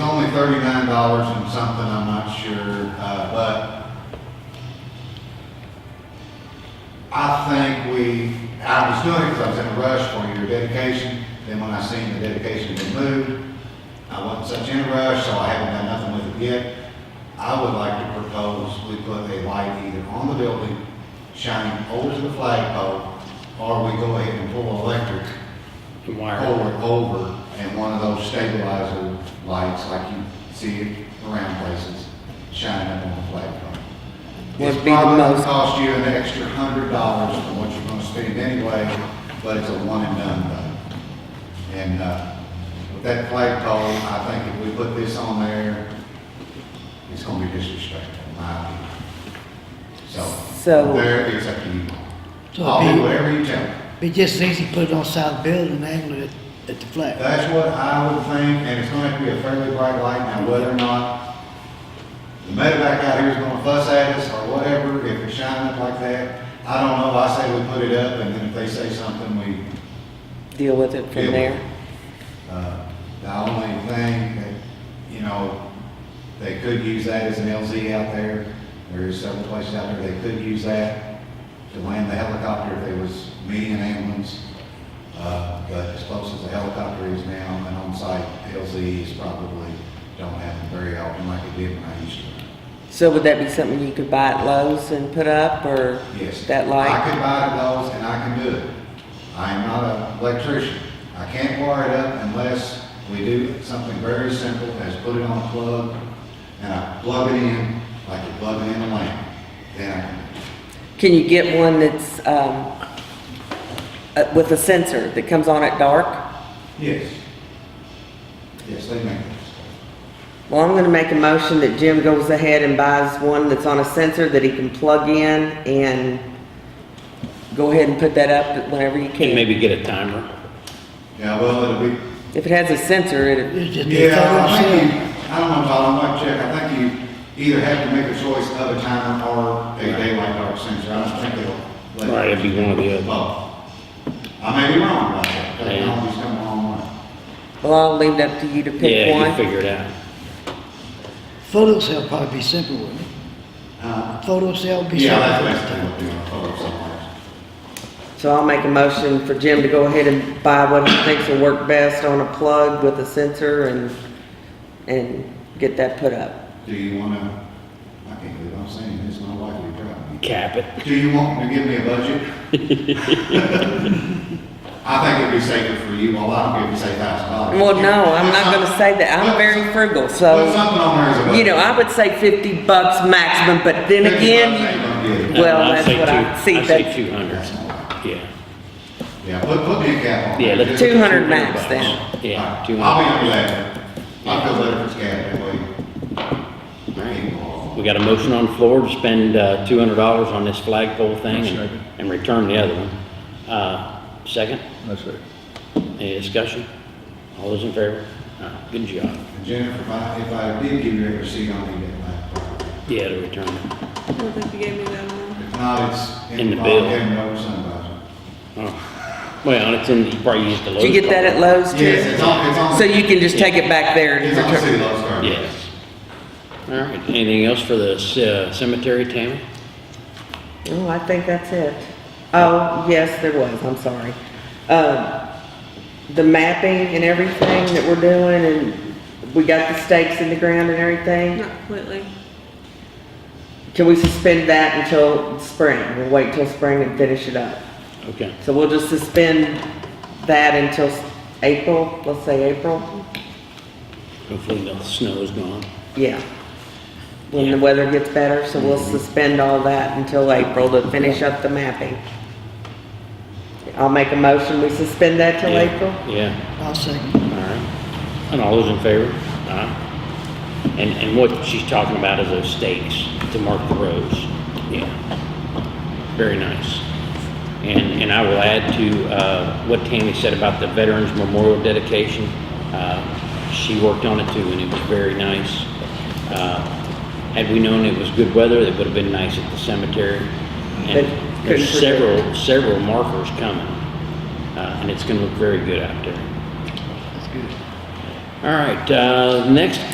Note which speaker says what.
Speaker 1: thirty-nine dollars and something, I'm not sure, uh, but I think we, I was doing it because I was in a rush for your dedication, then when I seen the dedication had been moved, I wasn't such in a rush, so I haven't done nothing with it yet. I would like to propose we put a light either on the building, shining over to the flagpole, or we go ahead and pull electric
Speaker 2: The wire.
Speaker 1: over, over, and one of those stabilizer lights like you see it around places, shining up on the flagpole.
Speaker 3: Would
Speaker 1: It's
Speaker 3: be the
Speaker 1: probably gonna
Speaker 3: most-
Speaker 1: cost you an extra hundred dollars from what you're gonna spend anyway, but it's a one and done though. And, uh, with that flagpole, I think if we put this on there, it's gonna be disrespectful, in my opinion. So,
Speaker 3: So-
Speaker 1: there, it's up to you.
Speaker 4: So
Speaker 1: I'll
Speaker 4: be-
Speaker 1: do whatever you tell me.
Speaker 4: Be just easy, to put it on the side of the building and angle it at the flag.
Speaker 1: That's what I would think, and it's gonna have to be a fairly bright light, now whether or not the medevac out here is gonna fuss at us or whatever, if it's shining up like that, I don't know, I say we put it up, and then if they say something, we,
Speaker 3: deal with it
Speaker 1: Yeah.
Speaker 3: from there.
Speaker 1: uh, the only thing that, you know, they could use that as an LZ out there, there is several places out there, they could use that to land the helicopter if there was median ambulance, uh, but as close as the helicopter is now, an on-site LZ is probably, don't happen very often like it did when I used to.
Speaker 3: So would that be something you could buy at Lowe's and put up, or
Speaker 1: Yes.
Speaker 3: that
Speaker 1: I
Speaker 3: light?
Speaker 1: could buy those and I can do it. I am not an electrician. I can't wire it up unless we do something very simple as put it on a plug and I plug it in like you're plugging in a lamp. Then I can
Speaker 3: Can you get one that's, um, uh, with a sensor that comes on at dark?
Speaker 1: Yes. Yes, they make those.
Speaker 3: Well, I'm gonna make a motion that Jim goes ahead and buys one that's on a sensor that he can plug in and go ahead and put that up whenever you
Speaker 2: Can
Speaker 3: can.
Speaker 2: maybe get a timer.
Speaker 1: Yeah, well, it'll be,
Speaker 3: If it has a sensor, it,
Speaker 4: It's just be a
Speaker 1: yeah,
Speaker 4: photo
Speaker 1: I think you,
Speaker 4: cell.
Speaker 1: I don't know, Todd, I might check. I think you either have to make a choice of a timer or a daylight dark sensor. I don't think it'll. let you-
Speaker 2: Right, it'd be one or the other.
Speaker 1: Well, I may be wrong about that, but I always come a long way.
Speaker 3: well, I'll leave it up to you to pick
Speaker 2: Yeah, you
Speaker 3: one.
Speaker 2: figure it out.
Speaker 4: Photo cell probably be simple, wouldn't it?
Speaker 1: Uh,
Speaker 4: Photo cell be
Speaker 1: Yeah,
Speaker 4: simple.
Speaker 1: that's basically what they want, photo somewhere.
Speaker 3: So I'll make a motion for Jim to go ahead and buy what he thinks will work best on a plug with a sensor and, and get that put up.
Speaker 1: Do you wanna, I can't believe I'm saying this, my wife will be proud of me.
Speaker 2: Cap it. Uh,
Speaker 1: Do you want to give me a budget? I think it'd be safer for you, well, I don't give you say thousand dollars.
Speaker 3: Well, no, I'm not gonna say that. I'm very frugal, so.
Speaker 1: Put something on there as a budget.
Speaker 3: You know, I would say fifty bucks maximum, but then
Speaker 1: Fifty bucks
Speaker 3: again,
Speaker 1: ain't gonna get it.
Speaker 3: Well,
Speaker 2: I'd
Speaker 3: that's
Speaker 2: say
Speaker 3: what I-
Speaker 2: two-
Speaker 3: see,
Speaker 2: I'd say
Speaker 3: that's-
Speaker 2: two hundred.
Speaker 1: That's all right.
Speaker 2: Yeah.
Speaker 1: Yeah, put, put me a cap on.
Speaker 2: Yeah,
Speaker 1: it.
Speaker 2: let's-
Speaker 1: Just-
Speaker 3: two hundred max
Speaker 2: bucks.
Speaker 3: then.
Speaker 2: Yeah,
Speaker 1: I'll be
Speaker 2: two hundred.
Speaker 1: on that. I feel better if it's capped that way. People-
Speaker 2: We got a motion on the floor to spend, uh, two hundred dollars on this flagpole thing and, and return the other one. Uh, second,
Speaker 5: That's right.
Speaker 2: any discussion? All those in favor? Uh, Good job.
Speaker 1: Jennifer, if I, if I did give you a receipt, I'll need it back.
Speaker 2: Yeah, to return it.
Speaker 6: I don't think you gave me that one.
Speaker 1: If not, it's
Speaker 2: In
Speaker 1: in
Speaker 2: the
Speaker 1: the
Speaker 2: bill.
Speaker 1: and over somebody.
Speaker 2: Oh. Well, it's in, you probably used the
Speaker 3: Did you
Speaker 2: lowest
Speaker 3: get that at
Speaker 2: card.
Speaker 3: Lowe's
Speaker 1: Yes,
Speaker 3: too?
Speaker 1: it's on, it's on.
Speaker 3: So you can just take it back there and
Speaker 1: It's on the
Speaker 3: return.
Speaker 1: city laws card.
Speaker 2: Yes. All right, anything else for the c- uh, cemetery, Tammy?
Speaker 3: Oh, I think that's it. Oh, yes, there was, I'm sorry. Um, the mapping and everything that we're doing and we got the stakes in the ground and everything,
Speaker 6: Not completely.
Speaker 3: can we suspend that until spring? We'll wait till spring and finish it up.
Speaker 2: Okay.
Speaker 3: So we'll just suspend that until s- April, let's say April?
Speaker 2: Hopefully the snow is gone.
Speaker 3: Yeah. When the weather gets better, so we'll suspend all that until April to finish up the mapping. I'll make a motion, we suspend that till
Speaker 2: Yeah,
Speaker 3: April?
Speaker 2: Yeah,
Speaker 4: I'll second.
Speaker 2: all right. And all those in favor? Aye. And, and what she's talking about is those stakes to mark the roads. Yeah. Very nice. And, and I will add to, uh, what Tammy said about the Veterans Memorial dedication. Uh, she worked on it too and it was very nice. Uh, had we known it was good weather, it would have been nice at the cemetery.
Speaker 3: But
Speaker 2: And
Speaker 3: couldn't
Speaker 2: there's
Speaker 3: predict.
Speaker 2: several, several markers coming. Uh, and it's gonna look very good out there.
Speaker 4: That's good.
Speaker 2: All right, uh, next